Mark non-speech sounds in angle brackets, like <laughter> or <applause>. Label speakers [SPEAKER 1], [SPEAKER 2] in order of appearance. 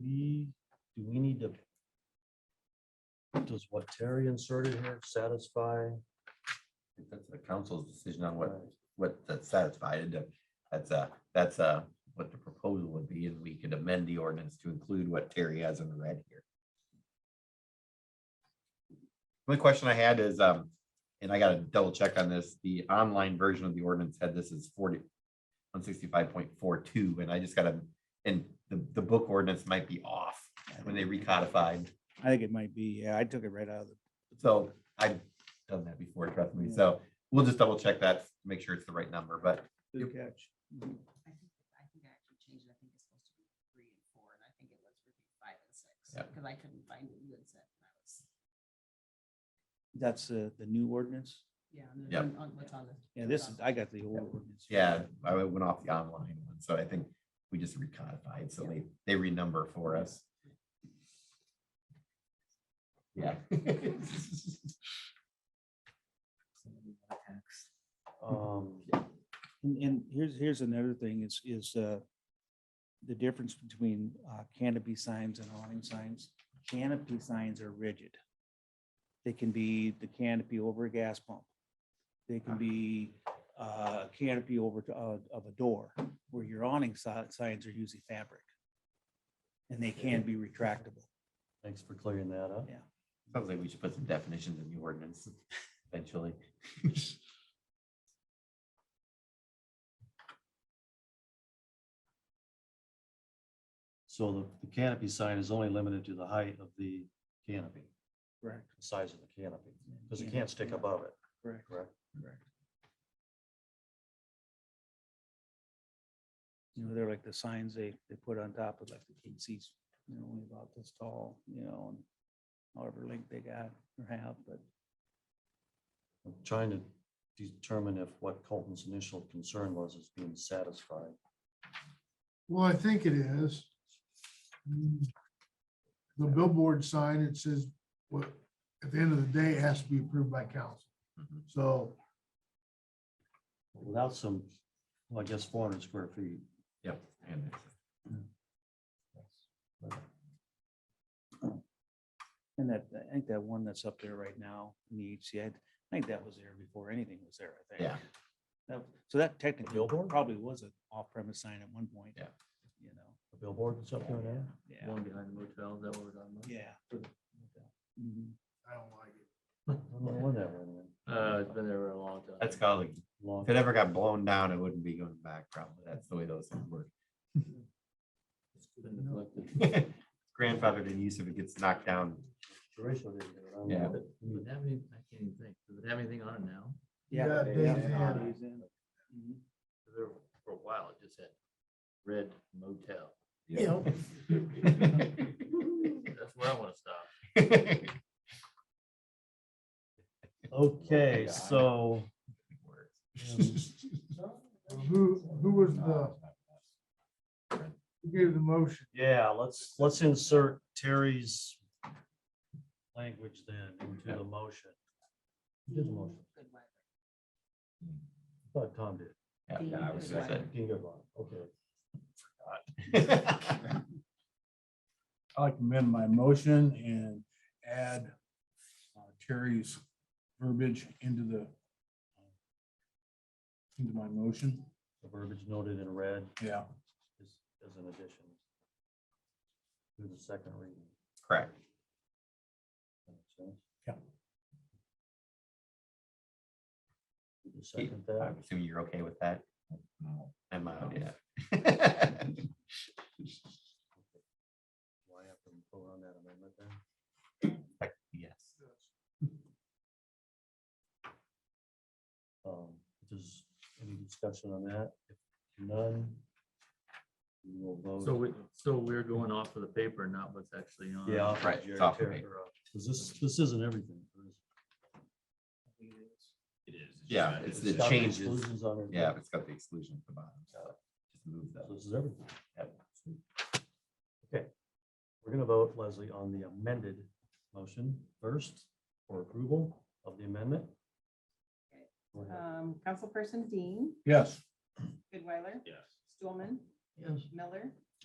[SPEAKER 1] we, do we need to? Does what Terry inserted here satisfy?
[SPEAKER 2] think That's the council's decision on what, what that's satisfied. uh, That's a, that's a, what the proposal would be, and we could amend the ordinance to include what Terry has in red here. Only question I had is, um, and I gotta double check on this, the online version of the ordinance had this as forty, one sixty-five point four two, and I just gotta, and the, the book ordinance might be off when they recodified.
[SPEAKER 3] I think it might be, yeah, I took it right out of the,
[SPEAKER 2] So I've done that before, trust me. So we'll just double check that, make sure it's the right number, but
[SPEAKER 3] good catch.
[SPEAKER 4] I think, I think I actually changed it. I think it's supposed to be three and four, and I think it was really five and six.
[SPEAKER 2] Yep.
[SPEAKER 4] Because I couldn't find what you had said. when I was-
[SPEAKER 3] That's the, the new ordinance.
[SPEAKER 4] Yeah. on the-
[SPEAKER 2] Yep.
[SPEAKER 4] on- on what's on the-
[SPEAKER 3] Yeah,
[SPEAKER 4] what's
[SPEAKER 3] this
[SPEAKER 4] on
[SPEAKER 3] is,
[SPEAKER 4] the-
[SPEAKER 3] I got the old ordinance.
[SPEAKER 2] yeah, I went off the online one. So I think we just recodified, so they, they renumber for us. Yeah. <laughs>
[SPEAKER 1] Um,
[SPEAKER 3] And, and here's, here's another thing is, is, uh, the difference between, uh, canopy signs and awning signs. Canopy signs are rigid. They can be the canopy over a gas pump. They can be, uh, canopy over, to, uh, of a door where your awning si- signs are usually fabric. And they can be retractable.
[SPEAKER 1] Thanks for clearing that up.
[SPEAKER 3] Yeah.
[SPEAKER 2] Sounds like we should put some definitions in the ordinance eventually. <laughs>
[SPEAKER 1] So the- the canopy sign is only limited to the height of the canopy,
[SPEAKER 3] Correct.
[SPEAKER 1] the size of the canopy, because it can't stick above it,
[SPEAKER 3] Correct.
[SPEAKER 1] correct?
[SPEAKER 3] Correct. You know, they're like the signs they, they put on top of like the kids' seats, you know, only about this tall, you know, and however length they got or have, but
[SPEAKER 1] I'm trying to determine if what Colton's initial concern was is being satisfied.
[SPEAKER 5] Well, I think it is. Mm. The billboard sign, it says, what, at the end of the day, it has to be approved by council.
[SPEAKER 2] Mhm.
[SPEAKER 5] So
[SPEAKER 1] Without some, well, I guess four hundred square feet.
[SPEAKER 2] Yep. and it's-
[SPEAKER 3] and that, I think that one that's up there right now in the HCA, I think that was there before anything was there, I think.
[SPEAKER 2] Yeah,
[SPEAKER 3] That- So that technically
[SPEAKER 1] billboard?
[SPEAKER 3] probably was an off-premise sign at one point.
[SPEAKER 2] Yeah.
[SPEAKER 3] You know,
[SPEAKER 1] The billboard that's up there now?
[SPEAKER 3] yeah,
[SPEAKER 1] behind the motel, is that what we're talking
[SPEAKER 3] yeah. Mhm.
[SPEAKER 5] I don't like it.
[SPEAKER 1] I don't know when that went in.
[SPEAKER 6] Uh, it's been there for a long time.
[SPEAKER 2] that's called,
[SPEAKER 1] Long-
[SPEAKER 2] if it ever got blown down, it wouldn't be going back probably. That's the way those things work. <laughs>
[SPEAKER 6] It's been neglected.
[SPEAKER 2] Grandfathered in use if it gets knocked down.
[SPEAKER 1] Horatio didn't do it, I don't
[SPEAKER 2] Yeah.
[SPEAKER 1] know.
[SPEAKER 6] But Would it have any, I can't even think, does it have anything on it now?
[SPEAKER 5] Yeah,
[SPEAKER 3] yeah,
[SPEAKER 5] days
[SPEAKER 3] yeah,
[SPEAKER 5] in.
[SPEAKER 3] days in. Mhm.
[SPEAKER 6] 'Cause There, for a while, it just had red motel. That's where I wanna stop.
[SPEAKER 1] Okay, so.
[SPEAKER 5] Who, who was the,
[SPEAKER 2] Uh,
[SPEAKER 5] who gave the motion?
[SPEAKER 1] Yeah, let's, let's insert Terry's language then into the motion. Who did the motion?
[SPEAKER 4] Good weather.
[SPEAKER 1] I Thought Tom did.
[SPEAKER 2] Yeah, yeah, I was gonna say.
[SPEAKER 1] Dean Goodwin, okay.
[SPEAKER 2] <laughs>
[SPEAKER 7] I like to amend my motion and add uh, Terry's verbiage into the into my motion.
[SPEAKER 1] The verbiage noted in red
[SPEAKER 7] Yeah.
[SPEAKER 1] is, is an addition. To the second reading.
[SPEAKER 2] Correct.
[SPEAKER 1] That makes sense?
[SPEAKER 7] Yeah.
[SPEAKER 1] You Second that,
[SPEAKER 2] I'm assuming you're okay with that? I'm out, yeah.
[SPEAKER 1] do I have to vote on that amendment then?
[SPEAKER 2] <laughs> Yes.
[SPEAKER 1] Um, does any discussion on that? If None. We will vote.
[SPEAKER 6] So we, so we're going off of the paper, not what's actually on.
[SPEAKER 1] Yeah. I'll put
[SPEAKER 2] Right, it's
[SPEAKER 1] Jerry
[SPEAKER 2] off of
[SPEAKER 1] Terry
[SPEAKER 2] me.
[SPEAKER 1] or, uh, Cause this, this isn't everything. there is-
[SPEAKER 2] Yeah, it's the
[SPEAKER 1] it's got
[SPEAKER 2] changes.
[SPEAKER 1] exclusions on it.
[SPEAKER 2] Yeah, it's got the exclusion at the bottom. so Just move
[SPEAKER 1] So
[SPEAKER 2] those.
[SPEAKER 1] This is everything.
[SPEAKER 2] Yep.
[SPEAKER 1] We're gonna vote, Leslie, on the amended motion first for approval of the amendment.
[SPEAKER 4] Okay.
[SPEAKER 1] Go ahead.
[SPEAKER 4] Um, Councilperson Dean,
[SPEAKER 7] Yes.
[SPEAKER 4] Goodweiler?
[SPEAKER 6] Yes.
[SPEAKER 4] Stulman?
[SPEAKER 1] Yes.
[SPEAKER 4] Miller?